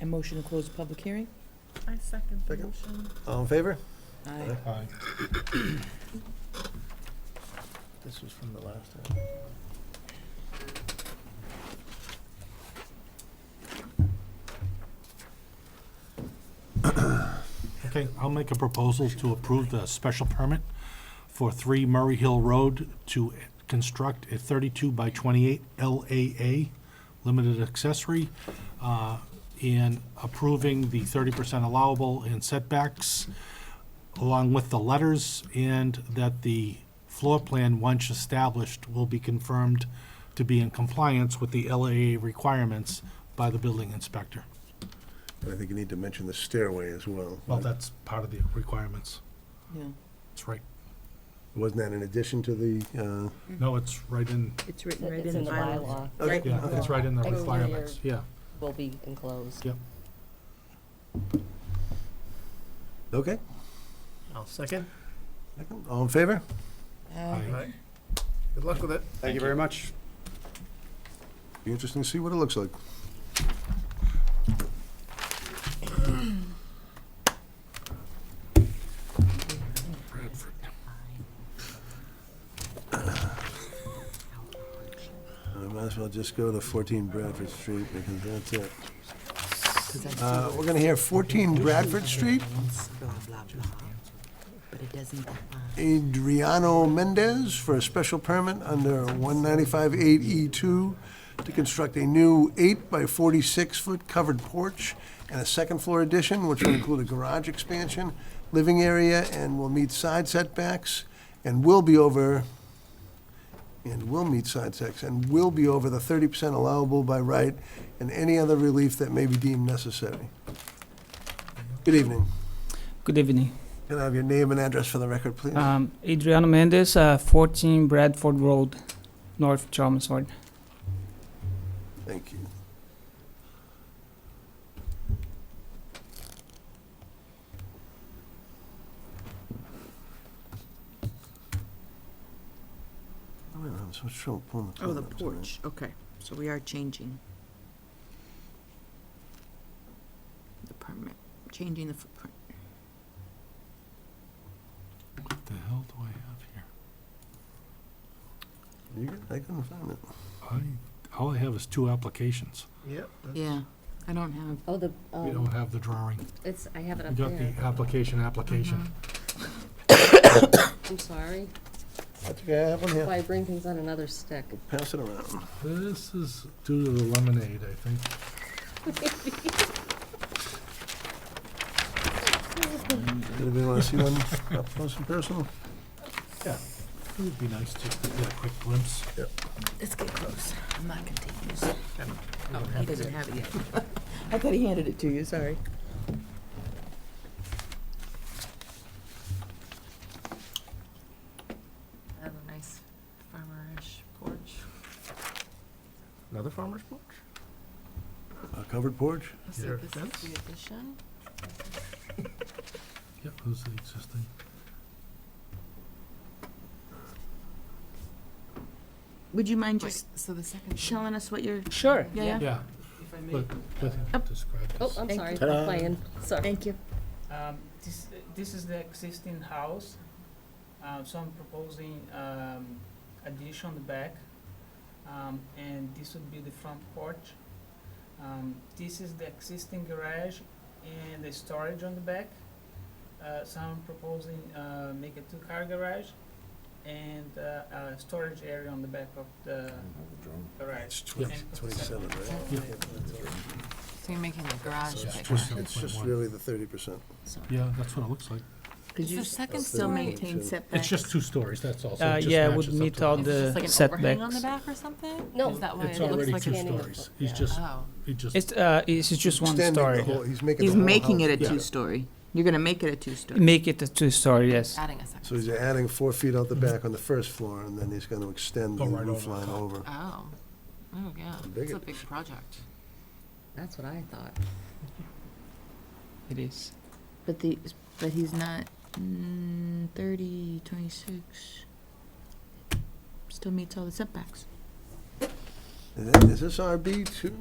I motion to close the public hearing. I second the Second. motion. All in favor? Aye. Aye. This was from the last one. Okay, I'll make a proposal to approve the special permit for 3 Murray Hill Road to construct a 32 by 28 LAA limited accessory, uh, and approving the 30% allowable and setbacks along with the letters, and that the floor plan, once established, will be confirmed to be in compliance with the LAA requirements by the building inspector. And I think you need to mention the stairway as well. Well, that's part of the requirements. Yeah, That's right. Wasn't that in addition to the, No, it's right in, It's written right It's in the bylaw. bylaw, uh? Right. yeah, it's right in the Exterior. requirements, yeah. will be enclosed. Okay. I'll second. Second. All in favor? Aye. Aye. Good luck with it. Thank you very much. Be interesting to see what it looks like. I might as well just go to 14 Bradford Street because that's it. Uh, We're going to hear 14 Bradford Street, But it doesn't Adriano Mendez for a special permit under 195-8E2 E to construct a new 8-by-46-foot covered porch and a second-floor addition, which will include a garage expansion, living area, and will meet side setbacks, and will be over, and will meet side setbacks, and will be over the 30% allowable by right, and any other relief that may be deemed necessary. Good evening. Good evening. Can I have your name and address for the record, please? Uh, Um, Adriano Mendez, uh, 14 Bradford Road, North Chelmsford. Thank you. Oh, wait, I'm so sure pulling the. Oh, the plug up tonight. porch, okay. So we are changing the permit, changing the footprint. What the hell do I have here? You good? I couldn't find it. I, all I have is two applications. Yep. Yeah, I don't have, Oh, the, We don't um, have the drawing. it's, I have it We up got the there. application, application. I'm sorry. I think I have one That's why here. I bring things on another stick. Pass it around. This is due to the lemonade, I think. Anybody want to see one up close and personal? Yeah. It would be nice to get a quick glimpse. let's get close. I'm not gonna take this. Oh, He doesn't have it yet. I thought he handed it to you, sorry. I have a nice farmerish porch. Another farmer's porch? A covered porch? Let's Your see, this is the addition. Yep, who's the existing? Would you mind Wait, just so the second. showing us what you're, Sure. yeah, yeah? Yeah. But, but describe Oh, this. I'm Thank sorry, you. I'm playing, sorry. Thank you. Um, this, this is the existing house, uh, so I'm proposing, um, addition on the back, um, and this would be the front porch. Um, this is the existing garage and the storage on the back, uh, so I'm proposing, uh, make a two-car garage and, uh, a storage area on the back of the garage. It's 20 27, Yeah. right? So you're making the garage It's just It's just 7.1. really the 30%. Yeah, that's what it looks like. Could you second still maintain It's setbacks? just two stories, that's all. so Uh, just yeah, it matches would up meet to all Oh, the- the setbacks. back or something? No. Is that why It's it looks already like two it's- stories. He's just, Oh. he just. It's, uh, it's just one Extending the story. whole- He's making the He's whole making house it a bigger. two-story. You're gonna make it a two-story. Make it a two-story, yes. Adding a second. So he's adding four feet out the back on the first floor, and then he's gonna extend the Mm-hmm. Go right roof over the line top. over. Oh, oh, yeah, Big It's a it big project. That's what I thought. It is. But the, but he's not, mm, thirty, twenty-six, still meets all the setbacks. Is that- is this RB two?